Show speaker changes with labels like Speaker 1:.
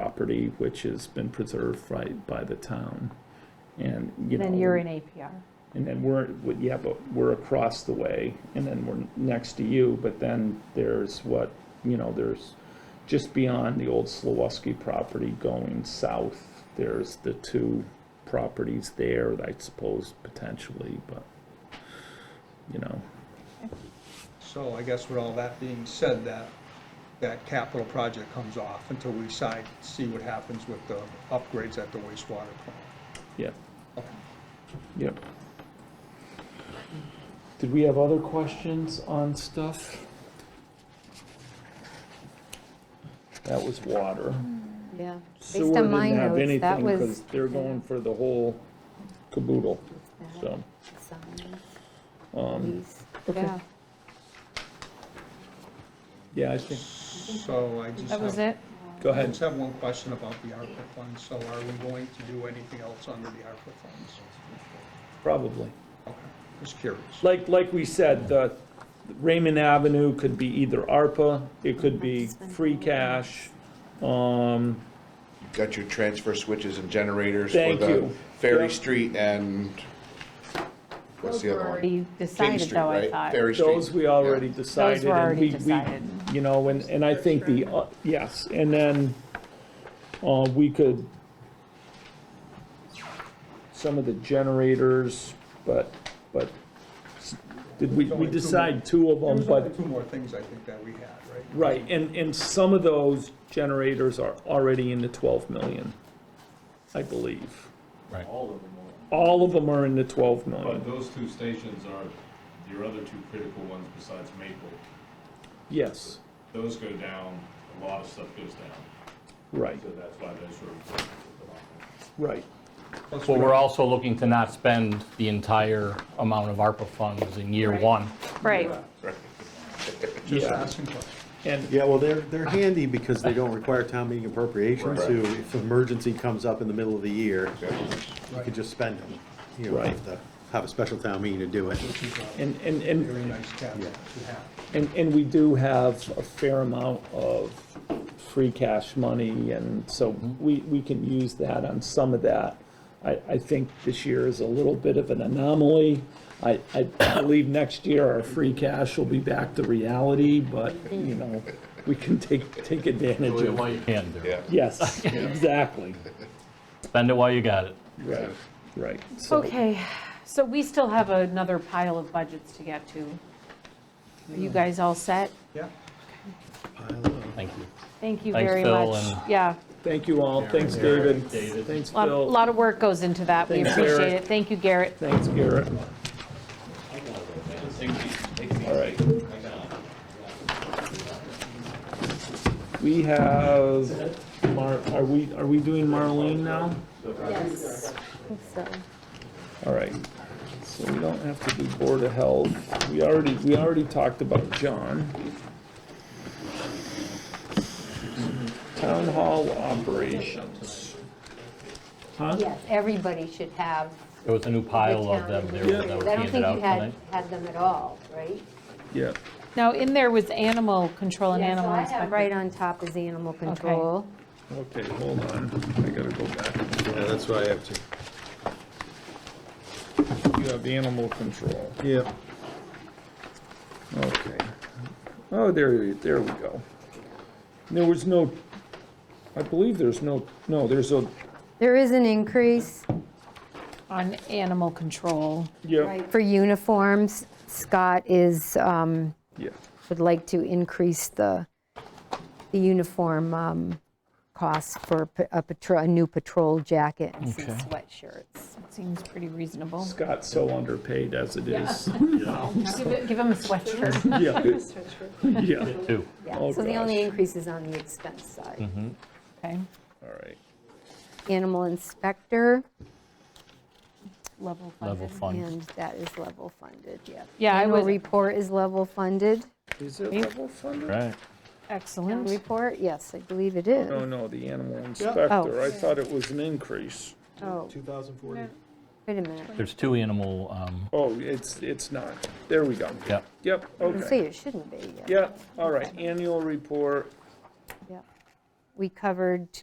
Speaker 1: property, which has been preserved right by the town. And, you know.
Speaker 2: Then you're in APR.
Speaker 1: And then we're, well, yeah, but we're across the way, and then we're next to you, but then there's what, you know, there's just beyond the old Slawski property going south, there's the two properties there, I suppose, potentially, but, you know,
Speaker 3: So I guess with all that being said, that, that capital project comes off until we decide, see what happens with the upgrades at the wastewater plant.
Speaker 1: yeah,
Speaker 3: Okay.
Speaker 1: yep. Did we have other questions on stuff? That was water.
Speaker 4: Yeah,
Speaker 1: Sewer
Speaker 4: Mm. based on
Speaker 1: didn't
Speaker 4: my
Speaker 1: have
Speaker 4: notes, that
Speaker 1: anything because
Speaker 4: was.
Speaker 1: they're going for the whole caboodle,
Speaker 4: that,
Speaker 1: so,
Speaker 4: signs,
Speaker 1: um,
Speaker 4: these.
Speaker 2: Yeah,
Speaker 1: yeah, I think,
Speaker 3: So I just
Speaker 2: that was
Speaker 3: have,
Speaker 2: it.
Speaker 1: go
Speaker 3: I
Speaker 1: ahead.
Speaker 3: just have one question about the ARPA funds. So are we going to do anything else under the ARPA funds?
Speaker 1: Probably.
Speaker 3: Okay, just curious.
Speaker 1: Like, like we said, the Raymond Avenue could be either ARPA, it could be free cash. Um,
Speaker 5: Got your transfer switches and generators for
Speaker 1: Thank
Speaker 5: the
Speaker 1: you.
Speaker 5: Ferry
Speaker 1: Yep.
Speaker 5: Street and, what's the other one?
Speaker 2: You
Speaker 5: King
Speaker 2: decided
Speaker 5: Street,
Speaker 2: though, I
Speaker 5: right?
Speaker 2: thought.
Speaker 5: Ferry Street.
Speaker 1: those we already decided. and
Speaker 2: already
Speaker 1: we- we-
Speaker 2: decided.
Speaker 1: You know, and, and I think the, uh, yes, and then, uh, we could, some of the generators, but, but, s- did we, we decide two of them,
Speaker 3: There's only
Speaker 1: Um, but,
Speaker 3: two more things I think that we had, right?
Speaker 1: right, and, and some of those generators are already in the twelve million, I believe.
Speaker 6: All of them are.
Speaker 1: All of them are in the twelve million,
Speaker 6: But those two stations are your other two critical ones besides Maple.
Speaker 1: yes,
Speaker 6: Those go down, a lot of stuff goes down,
Speaker 1: right,
Speaker 6: so that's why those are.
Speaker 1: right,
Speaker 3: Plus,
Speaker 7: Well, we're also looking to not spend the entire amount of ARPA funds in year
Speaker 2: Right.
Speaker 7: one.
Speaker 2: Right,
Speaker 3: Just
Speaker 1: yeah,
Speaker 3: asking questions.
Speaker 1: and,
Speaker 8: Yeah, well, they're, they're handy because they don't require town meeting appropriations, so
Speaker 5: Right.
Speaker 8: if an emergency comes up in the middle of the year, you
Speaker 3: Right.
Speaker 8: could just spend them. You don't
Speaker 1: Right.
Speaker 8: have to have a special town meeting to do it.
Speaker 3: Which is a
Speaker 1: and, and, and
Speaker 3: very nice capital to have.
Speaker 1: And, and we do have a fair amount of free cash money, and so we, we can use that on some of that. I, I think this year is a little bit of an anomaly. I, I believe next year our free cash will be back to reality, but, you know, we can take, take advantage
Speaker 7: Do it
Speaker 1: of.
Speaker 7: while you can, do it.
Speaker 5: Yeah.
Speaker 1: Yes, exactly,
Speaker 7: Spend it while you got it.
Speaker 1: right, right. So-
Speaker 2: okay. So we still have another pile of budgets to get to. Are
Speaker 1: Hmm.
Speaker 2: you guys all set?
Speaker 3: Yeah,
Speaker 7: Thank you.
Speaker 2: Thank you
Speaker 7: Thanks,
Speaker 2: very
Speaker 7: Phil,
Speaker 2: much.
Speaker 7: and-
Speaker 2: Yeah,
Speaker 1: Thank you all, thanks David, thanks
Speaker 2: a
Speaker 1: Phil,
Speaker 2: lot of work goes into that. We
Speaker 1: Thanks,
Speaker 2: appreciate
Speaker 1: Garrett.
Speaker 2: it. Thank you, Garrett.
Speaker 1: thanks Garrett. All right. We have, Mar, are we, are we doing Marlene now?
Speaker 4: Yes, so,
Speaker 1: All right, so we don't have to do Board of Health. We already, we already talked about John. Town Hall operations. Huh?
Speaker 4: yes, everybody should have.
Speaker 7: There was a new
Speaker 4: the
Speaker 7: pile of
Speaker 4: town
Speaker 7: them there
Speaker 4: administrator.
Speaker 7: that was
Speaker 4: I don't
Speaker 7: handed
Speaker 4: think
Speaker 7: out
Speaker 4: you had,
Speaker 7: tonight.
Speaker 4: had them at all, right?
Speaker 1: Yeah,
Speaker 2: Now, in there was animal control and
Speaker 4: Yeah, so
Speaker 2: animal
Speaker 4: I have
Speaker 2: inspector.
Speaker 4: Right on top is animal control.
Speaker 1: okay, hold on, I gotta go back.
Speaker 8: Yeah, that's what I have to.
Speaker 1: You have animal control.
Speaker 8: Yeah.
Speaker 1: Okay. Oh, there, there we go. There was no, I believe there's no, no, there's a,
Speaker 4: There is an increase,
Speaker 2: On animal control.
Speaker 1: yeah,
Speaker 4: right, for uniforms. Scott is, um,
Speaker 1: yeah,
Speaker 4: would like to increase the, the uniform um, cost for pa- a patrol, a new patrol jacket and some sweatshirts.
Speaker 2: Seems pretty reasonable.
Speaker 1: Scott's so underpaid as it is.
Speaker 2: Give it- give him a sweatshirt.
Speaker 1: Yeah, yeah,
Speaker 7: Two.
Speaker 4: Yeah,
Speaker 1: Oh,
Speaker 4: so the only
Speaker 1: gosh.
Speaker 4: increase is on the expense
Speaker 7: Hmm.
Speaker 4: side.
Speaker 2: Okay,
Speaker 1: all right.
Speaker 4: Animal inspector,
Speaker 2: level funded.
Speaker 7: Level fund.
Speaker 4: and that is level funded, yeah.
Speaker 2: Yeah, I
Speaker 4: Annual
Speaker 2: was-
Speaker 4: report is level funded.
Speaker 1: Is it level funded?
Speaker 7: Right.
Speaker 2: Excellent.
Speaker 4: Report, yes, I believe it is.
Speaker 1: No, Oh, no, the animal inspector, I thought it was an increase.
Speaker 4: Oh,
Speaker 8: 2040.
Speaker 4: wait a minute.
Speaker 7: There's two animal, um,
Speaker 1: Oh, it's, it's not, there we go.
Speaker 7: yep.
Speaker 1: Yep,
Speaker 4: Let's see,
Speaker 1: okay.
Speaker 4: it shouldn't be, yeah.
Speaker 1: Yeah, all right, annual report,
Speaker 4: yeah. We covered